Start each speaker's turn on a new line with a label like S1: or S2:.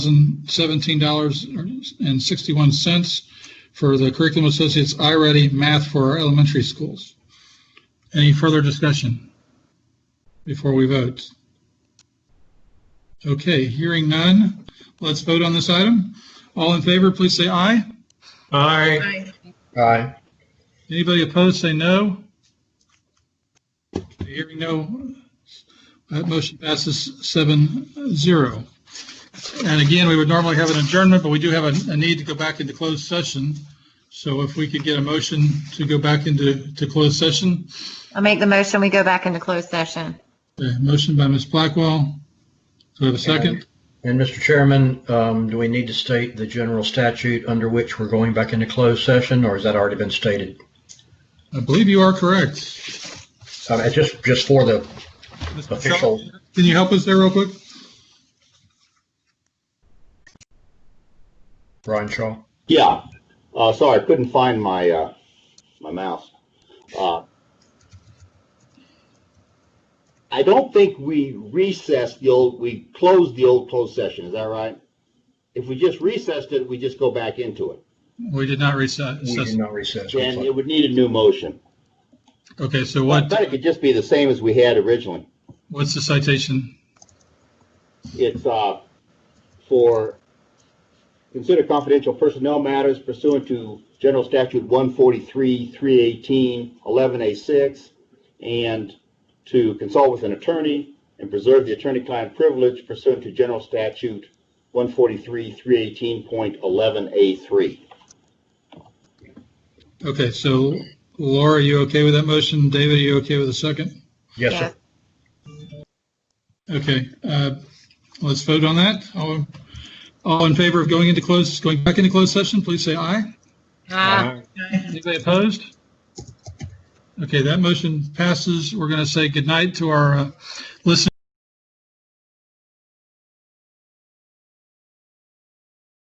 S1: $1,017.61 for the Curriculum Associates iReady Math for our elementary schools. Any further discussion before we vote? Okay, hearing none, let's vote on this item. All in favor, please say aye.
S2: Aye.
S3: Aye.
S4: Aye.
S1: Anybody opposed, say no. Hearing no, that motion passes seven zero. And again, we would normally have an adjournment, but we do have a, a need to go back into closed session. So if we could get a motion to go back into, to closed session,
S5: I'll make the motion, we go back into closed session.
S1: a motion by Ms. Blackwell. Do we have a second?
S4: And Mr. Chairman, um, do we need to state the general statute under which we're going back into closed session, or has that already been stated?
S1: I believe you are correct.
S4: Uh, Just, just for the,
S1: Ms.
S4: Official.
S1: Patel, Can you help us there real quick?
S4: Brian Shaw.
S6: Yeah, uh, sorry, I couldn't find my, uh, my mouse. Uh, I don't think we recessed the old, we closed the old closed session, is that right? If we just recessed it, we just go back into it,
S1: We did not recess.
S4: We did not recess.
S6: then it would need a new motion.
S1: Okay, so
S6: But
S1: what,
S6: it could just be the same as we had originally.
S1: what's the citation?
S6: It's, uh, for consider confidential personnel matters pursuant to General Statute one forty-three, three eighteen, eleven A six, and to consult with an attorney and preserve the attorney-client privilege pursuant to General Statute one forty-three, three eighteen point eleven A three.
S1: Okay, so Laura, are you okay with that motion? David, are you okay with the second?
S4: Yes, sir.
S1: Okay, uh, let's vote on that. All, all in favor of going into closed, going back into closed session, please say aye.
S5: Ah,
S1: Anybody opposed? Okay, that motion passes. We're going to say goodnight to our uh, listeners.